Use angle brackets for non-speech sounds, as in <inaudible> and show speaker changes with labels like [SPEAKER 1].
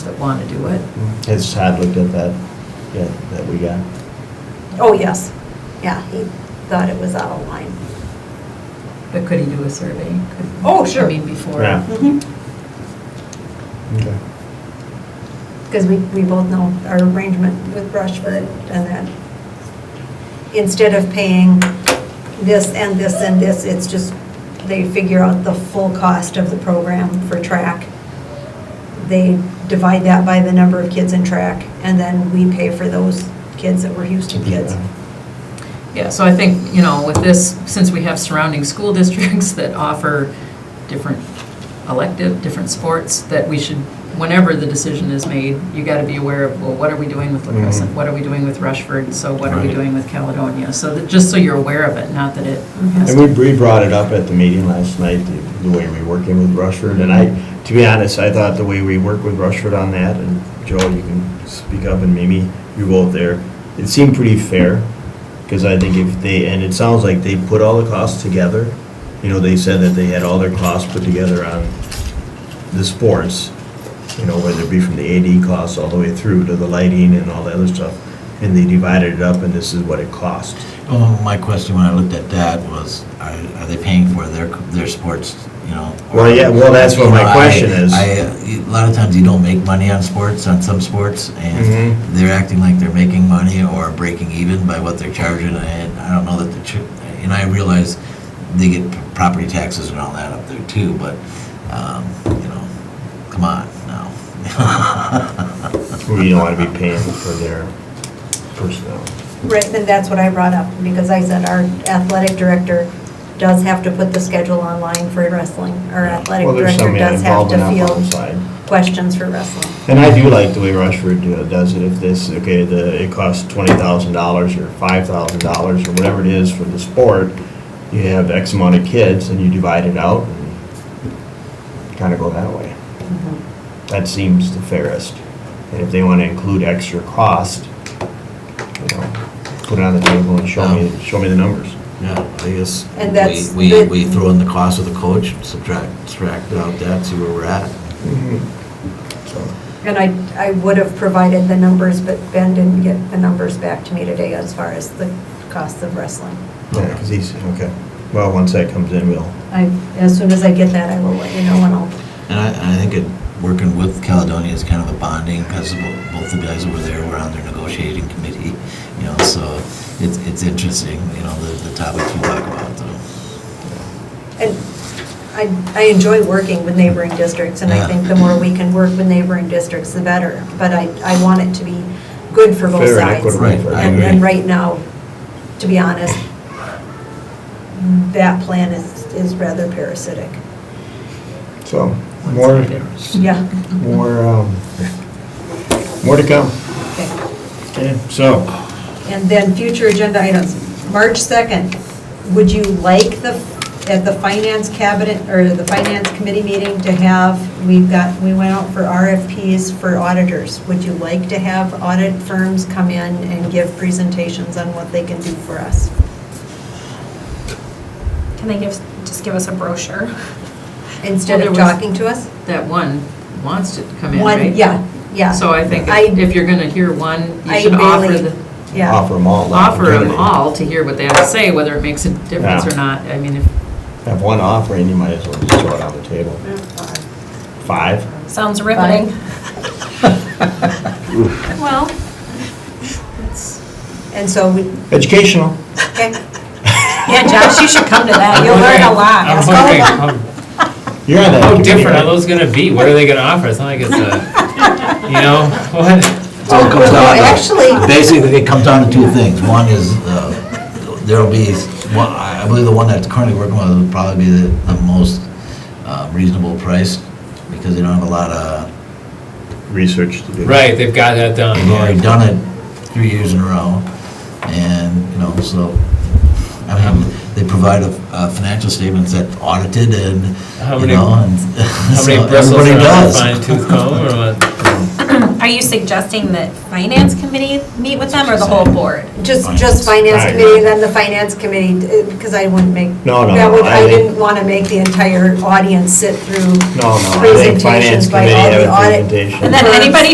[SPEAKER 1] that want to do it.
[SPEAKER 2] Has Todd looked at that, yeah, that we got?
[SPEAKER 3] Oh, yes. Yeah, he thought it was out of line.
[SPEAKER 1] But could he do a survey? Could-
[SPEAKER 3] Oh, sure.
[SPEAKER 1] I mean, before.
[SPEAKER 2] Yeah. Okay.
[SPEAKER 3] Because we, we both know our arrangement with Brushwood and that instead of paying this and this and this, it's just, they figure out the full cost of the program for track. They divide that by the number of kids in track, and then we pay for those kids that were Houston kids.
[SPEAKER 1] Yeah, so I think, you know, with this, since we have surrounding school <laughs> districts that offer different elective, different sports, that we should, whenever the decision is made, you got to be aware of, well, what are we doing with La Crescent?
[SPEAKER 2] Mhm.
[SPEAKER 1] What are we doing with Rushford? So what are we
[SPEAKER 2] Right.
[SPEAKER 1] doing with Caledonia? So that, just so you're aware of it, not that it
[SPEAKER 3] Mm-hmm.
[SPEAKER 1] has
[SPEAKER 2] And
[SPEAKER 1] to.
[SPEAKER 2] we, we brought it up at the meeting last night, the- the way we work in with Rushford, and I, to be honest, I thought the way we work with Rushford on that, and Joel, you can speak up, and Mimi, you're both there, it seemed pretty fair, because I think if they, and it sounds like they put all the costs together, you know, they said that they had all their costs put together on the sports, you know, whether it be from the AD costs all the way through to the lighting and all the other stuff, and they divided it up, and this is what it cost.
[SPEAKER 4] Well, Oh, my question when I looked at that was, are, are they paying for their, their sports, you know?
[SPEAKER 2] Well, yeah, well, that's what my
[SPEAKER 4] You know, I-
[SPEAKER 2] question is.
[SPEAKER 4] I, a lot of times you don't make money on sports, on some sports,
[SPEAKER 2] Mhm.
[SPEAKER 4] and they're acting like they're making money or breaking even by what they're charging, and I don't know that the, ch- and I realize they get property taxes and all that up there too, but, um, you know, come on now. <laughs>
[SPEAKER 2] We don't want to be paying for their personnel.
[SPEAKER 3] Right, and that's what I brought up, because I said our athletic director does have to put the schedule online for wrestling. Our athletic
[SPEAKER 2] Well, there's
[SPEAKER 3] director
[SPEAKER 2] some
[SPEAKER 3] does have to
[SPEAKER 2] involvement on both
[SPEAKER 3] field
[SPEAKER 2] sides.
[SPEAKER 3] questions for wrestling.
[SPEAKER 2] And I do like the way Rushford uh, does it, if this, okay, the, it costs twenty thousand dollars or five thousand dollars or whatever it is for the sport, you have X amount of kids and you divide it out and kind of go that way.
[SPEAKER 3] Mm-hmm.
[SPEAKER 2] That seems the fairest. And if they want to include extra cost, you know, put it on the table and show me, show me the numbers.
[SPEAKER 4] Yeah, I guess.
[SPEAKER 3] And that's
[SPEAKER 4] We, we-
[SPEAKER 3] the-
[SPEAKER 4] we throw in the cost of the coach, subtract, subtract out that, see where we're at.
[SPEAKER 2] So.
[SPEAKER 3] And I, I would have provided the numbers, but Ben didn't get the numbers back to me today as far as the cost of wrestling.
[SPEAKER 2] Yeah, because he's, okay. Well, once that comes in, we'll,
[SPEAKER 3] I, as soon as I get that, I will let you know and I'll,
[SPEAKER 4] And I, and I think it, working with Caledonia is kind of a bonding, because both the guys over there were on their negotiating committee, you know, so it's, it's interesting, you know, the, the topics we talk about, so.
[SPEAKER 3] and I, I enjoy working with neighboring districts and I
[SPEAKER 4] Yeah.
[SPEAKER 3] think the more we can work with neighboring districts, the better. But I, I want it to be good for both
[SPEAKER 2] Fair and
[SPEAKER 3] sides.
[SPEAKER 2] equitable
[SPEAKER 4] Right, for I
[SPEAKER 3] And-
[SPEAKER 4] agree.
[SPEAKER 3] And right now, to be honest, that plan is, is rather
[SPEAKER 4] <laughs>
[SPEAKER 3] parasitic.
[SPEAKER 2] so, more,
[SPEAKER 3] Yeah.
[SPEAKER 2] more, um, more to come.
[SPEAKER 3] Okay.
[SPEAKER 2] Okay, so,
[SPEAKER 3] And then future agenda items. March 2nd, would you like the, at the finance cabinet, or the finance committee meeting to have, we've got, we went out for RFPs for auditors. Would you like to have audit firms come in and give presentations on what they can do for us?
[SPEAKER 5] Can they give, just give us a brochure?
[SPEAKER 3] Instead
[SPEAKER 1] Well,
[SPEAKER 3] of
[SPEAKER 1] there was-
[SPEAKER 3] talking to us?
[SPEAKER 1] That one wants to come in,
[SPEAKER 3] One-
[SPEAKER 1] right?
[SPEAKER 3] Yeah, yeah.
[SPEAKER 1] So I think
[SPEAKER 3] I-
[SPEAKER 1] if if you're going to hear one, you
[SPEAKER 3] I
[SPEAKER 1] should offer
[SPEAKER 3] really-
[SPEAKER 1] the.
[SPEAKER 3] Yeah.
[SPEAKER 2] offer them all. the
[SPEAKER 1] offer them
[SPEAKER 2] opportunity.
[SPEAKER 1] all to hear what they have to say, whether it makes a difference
[SPEAKER 2] Yeah.
[SPEAKER 1] or not. I mean, if,
[SPEAKER 2] Have one offer, and you might as well just throw it on the table. Five?
[SPEAKER 5] Sounds riveting.
[SPEAKER 1] well, it's,
[SPEAKER 3] And so we,
[SPEAKER 2] Educational.
[SPEAKER 3] okay,
[SPEAKER 5] Yeah, Josh, you should come to that. You'll learn a lot.
[SPEAKER 6] I'm wondering,
[SPEAKER 5] <laughs>
[SPEAKER 6] how-
[SPEAKER 2] You're on that.
[SPEAKER 6] how
[SPEAKER 2] committee,
[SPEAKER 6] different are
[SPEAKER 2] right?
[SPEAKER 6] those gonna be? What are they gonna offer? It's not like it's a, you know, <laughs> what?
[SPEAKER 4] So it
[SPEAKER 3] Well,
[SPEAKER 4] comes down to-
[SPEAKER 3] actually-
[SPEAKER 4] Basically, it comes down to two things. One is, uh, there'll be, one, I I believe the one that's currently working with will probably be the, the most uh, reasonable price, because they don't have a lot of
[SPEAKER 2] Research to do.
[SPEAKER 6] Right, they've got that down.
[SPEAKER 4] They've already done it three years in a row, and, you know, so, I mean, they provide a, a financial statements that audited and,
[SPEAKER 6] How
[SPEAKER 4] you
[SPEAKER 6] many-
[SPEAKER 4] know, and
[SPEAKER 6] <laughs> How
[SPEAKER 4] <laughs> so
[SPEAKER 6] many bristles
[SPEAKER 4] everybody
[SPEAKER 6] are on a
[SPEAKER 4] does.
[SPEAKER 6] fine tooth comb or what?
[SPEAKER 5] Are you suggesting that finance committee meet with them or the whole board?
[SPEAKER 3] Just,
[SPEAKER 2] Finance.
[SPEAKER 3] just finance committee, then the finance committee, because I wouldn't make.
[SPEAKER 2] No, no,
[SPEAKER 3] That
[SPEAKER 2] no,
[SPEAKER 3] would,
[SPEAKER 2] I
[SPEAKER 3] I
[SPEAKER 2] think-
[SPEAKER 3] didn't want to make the entire audience sit through
[SPEAKER 2] No, no, I think finance
[SPEAKER 3] presentations by
[SPEAKER 2] committee
[SPEAKER 3] all
[SPEAKER 2] have
[SPEAKER 3] the
[SPEAKER 2] a
[SPEAKER 3] audit.
[SPEAKER 2] presentation.
[SPEAKER 5] And then anybody